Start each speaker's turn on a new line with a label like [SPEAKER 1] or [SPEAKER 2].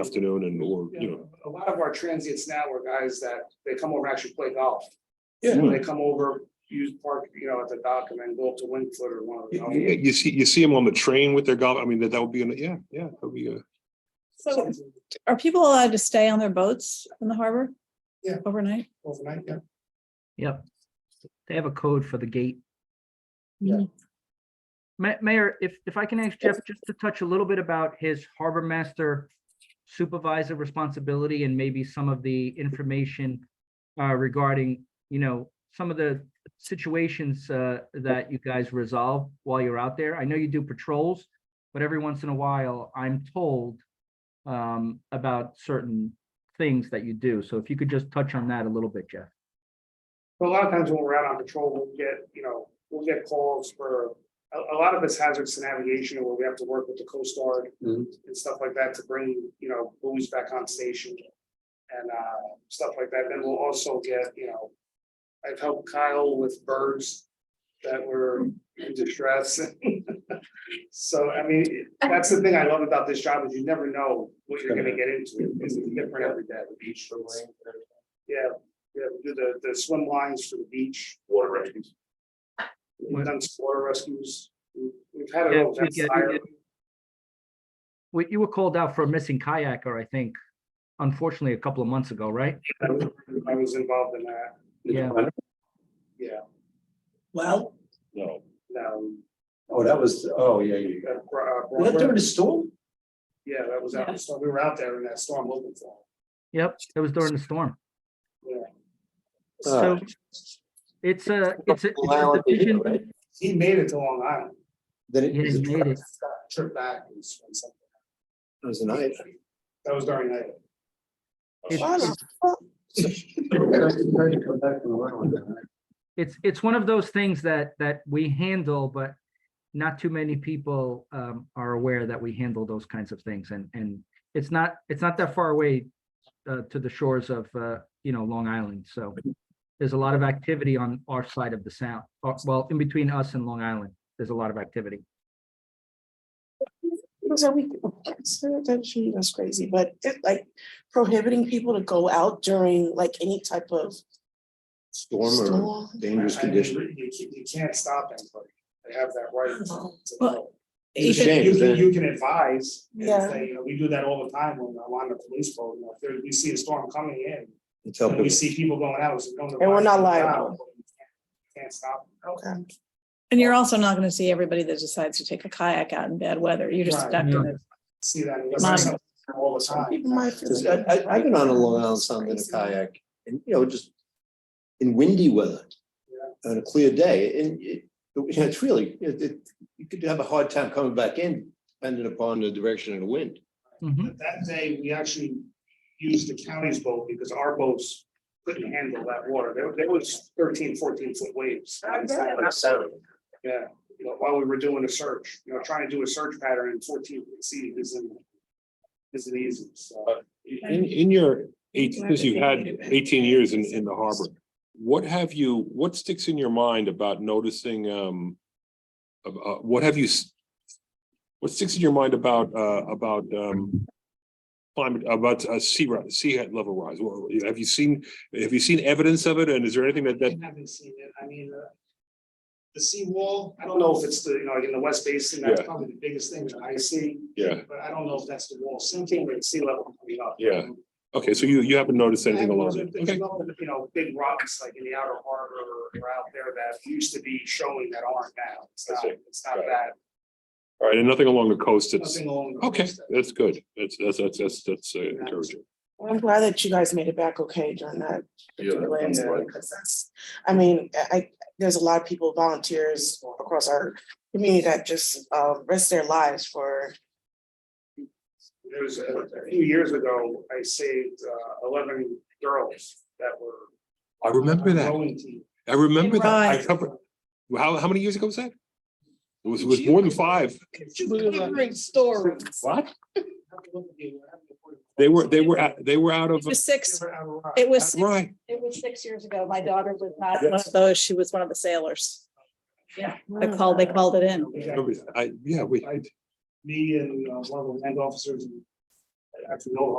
[SPEAKER 1] afternoon and or, you know,
[SPEAKER 2] A lot of our transients now are guys that they come over and actually play golf.
[SPEAKER 1] Yeah.
[SPEAKER 2] So They come over, use park, you know, at the dock and then go up to Wingfoot or one of
[SPEAKER 1] you,
[SPEAKER 2] the.
[SPEAKER 1] you- you see, you see them on the train with their golf. I mean, that, that would be, an- yeah, yeah, that would be a.
[SPEAKER 3] So are people allowed to stay on their boats in the harbor?
[SPEAKER 2] Yeah.
[SPEAKER 3] Overnight?
[SPEAKER 2] Overnight, yeah.
[SPEAKER 4] Yep. They have a code for the gate.
[SPEAKER 3] Yeah.
[SPEAKER 4] Ma- Mayor, if, if I can ask Jeff just to touch a little bit about his harbor master supervisor responsibility and maybe some of the information uh, regarding, you know, some of the situations uh, that you guys resolve while you're out there. I know you do patrols, but every once in a while, I'm told um, about certain things that you do. So if you could just touch on that a little bit, Jeff.
[SPEAKER 2] But a lot of times when we're out on patrol, we'll get, you know, we'll get calls for, a, a lot of it's hazards to navigation where we have to work with the Coast Guard
[SPEAKER 1] Mhm.
[SPEAKER 2] and stuff like that to bring, you know, buoys back on station and, uh, stuff like that. Then we'll also get, you know, I've helped Kyle with birds that were in distress. So, I mean, that's the thing I love about this job is you never know what you're gonna get into. It's different every day. Beach Yeah, yeah, we do the, the swim lines for the beach. Water rescues. We've done some water rescues. We've- We've had it
[SPEAKER 4] Yeah,
[SPEAKER 2] all.
[SPEAKER 4] we did, we
[SPEAKER 2] Fire.
[SPEAKER 4] Wait, you were called out for a missing kayaker, I think, unfortunately, a couple of months ago, right?
[SPEAKER 2] I was- I was involved in that.
[SPEAKER 4] Yeah.
[SPEAKER 2] Yeah,
[SPEAKER 5] Well,
[SPEAKER 1] No.
[SPEAKER 2] no.
[SPEAKER 5] oh, that was, oh, yeah, yeah. yeah.
[SPEAKER 2] um, uh, Bro- uh,
[SPEAKER 5] Was that during
[SPEAKER 2] Bronco-
[SPEAKER 5] the storm?
[SPEAKER 2] Yeah, that was out, in the storm. we were out there in that storm looking for him.
[SPEAKER 4] Yep, it was during the storm.
[SPEAKER 2] Yeah.
[SPEAKER 4] So it's a, it's a, it's a division,
[SPEAKER 2] He made it to Long Island.
[SPEAKER 5] Then
[SPEAKER 4] Yeah, he made it.
[SPEAKER 2] Trip back and swim something.
[SPEAKER 5] It was a night.
[SPEAKER 2] That was during night.
[SPEAKER 4] it's, it's, it's one of those things that, that we handle, but not too many people um, are aware that we handle those kinds of things and, and it's not, it's not that far away uh, to the shores of, uh, you know, Long Island. So there's a lot of activity on our side of the sound, uh, well, in between us and Long Island, there's a lot of activity.
[SPEAKER 6] It was a week, that's crazy, but it like prohibiting people to go out during like any type of
[SPEAKER 5] Storm
[SPEAKER 6] storm.
[SPEAKER 5] dangerous
[SPEAKER 2] I mean, You, you- you can't stop anybody. They have that right.
[SPEAKER 6] Oh,
[SPEAKER 2] to
[SPEAKER 3] Well,
[SPEAKER 2] know. You
[SPEAKER 5] It's a
[SPEAKER 2] can,
[SPEAKER 5] shame,
[SPEAKER 2] you can,
[SPEAKER 5] isn't it?
[SPEAKER 2] you can advise, and
[SPEAKER 6] Yeah.
[SPEAKER 2] say, you know, we do that all the time when I'm on the police boat, you know, if there, we see a storm coming in.
[SPEAKER 5] It's
[SPEAKER 2] And we see people going out, we say, "No, no,
[SPEAKER 6] And we're not
[SPEAKER 2] why are you
[SPEAKER 6] liable.
[SPEAKER 2] out?" But you can't- Can't stop.
[SPEAKER 6] Okay.
[SPEAKER 3] And you're also not gonna see everybody that decides to take a kayak out in bad weather. You're just
[SPEAKER 2] Right.
[SPEAKER 3] stuck in it.
[SPEAKER 2] See that. unless
[SPEAKER 3] Mine.
[SPEAKER 2] it's something All the
[SPEAKER 6] People might
[SPEAKER 2] time.
[SPEAKER 6] feel-
[SPEAKER 5] Because I, I, I've been on a Long Island Sound in a kayak and, you know, just in windy weather. On a clear day and it, you know, it's really, it, it, you could have a hard time coming back in depending upon the direction of the wind.
[SPEAKER 4] Mhm.
[SPEAKER 2] But That day, we actually used the county's boat because our boats couldn't handle that water. There, there was 13, 14 foot waves.
[SPEAKER 5] Sound.
[SPEAKER 2] Yeah, you know, while we were doing a search, you know, trying to do a search pattern in fourteen feet isn't. Isn't easy, so.
[SPEAKER 1] In, in your eight, since you've had eighteen years in, in the harbor, what have you, what sticks in your mind about noticing, um, of, uh, what have you, s- what sticks in your mind about, uh, about, um, climate, about, uh, sea, ri- sea level rise? Well, have you seen, have you seen evidence of it? And is there anything that, that,
[SPEAKER 2] I haven't seen it, I mean, uh. The seawall, I don't know if it's the, you know, like in the west basin, that's
[SPEAKER 1] Yeah.
[SPEAKER 2] probably the biggest thing that I see,
[SPEAKER 1] yeah,
[SPEAKER 2] but I don't know if that's the wall sinking or the sea level coming up.
[SPEAKER 1] Yeah. okay, so you, you haven't noticed anything
[SPEAKER 2] And
[SPEAKER 1] along
[SPEAKER 2] there's-
[SPEAKER 1] that?
[SPEAKER 2] there's
[SPEAKER 1] Okay,
[SPEAKER 2] no, You know, big rocks like in the outer harbor or out there that used to be showing that aren't now, it's
[SPEAKER 1] I
[SPEAKER 2] not,
[SPEAKER 1] see.
[SPEAKER 2] it's not
[SPEAKER 1] Got it.
[SPEAKER 2] that,
[SPEAKER 1] all right, and nothing along the coast, it's,
[SPEAKER 2] nothing along. the
[SPEAKER 1] okay,
[SPEAKER 2] coast.
[SPEAKER 1] that's good. That's, that's, that's, that's, that's uh, encouraging.
[SPEAKER 6] Well, I'm glad that you guys made it back okay during that. particular
[SPEAKER 2] that's
[SPEAKER 6] incident,
[SPEAKER 2] right.
[SPEAKER 6] Because that's, I mean, I, I- there's a lot of people, volunteers across our community that just uh risk their lives for,
[SPEAKER 2] There was a a few years ago, I saved uh, eleven girls that were.
[SPEAKER 1] I remember
[SPEAKER 2] on
[SPEAKER 1] that.
[SPEAKER 2] rowing team.
[SPEAKER 1] I remember that. I
[SPEAKER 3] Right.
[SPEAKER 1] covered, how, how many years ago was that? It was, it was more than five. What? They were, they were, out- they were out of,
[SPEAKER 3] It was six,
[SPEAKER 2] They were out of rock.
[SPEAKER 3] it was,
[SPEAKER 1] right,
[SPEAKER 3] it was six years ago. My daughter was not one of those. She was one of the sailors. Yeah, I
[SPEAKER 2] Oh,
[SPEAKER 3] called, they called it in.
[SPEAKER 2] We
[SPEAKER 1] I
[SPEAKER 2] got
[SPEAKER 1] remember that. I, yeah, we,
[SPEAKER 2] Me and uh, one of the land officers and That's no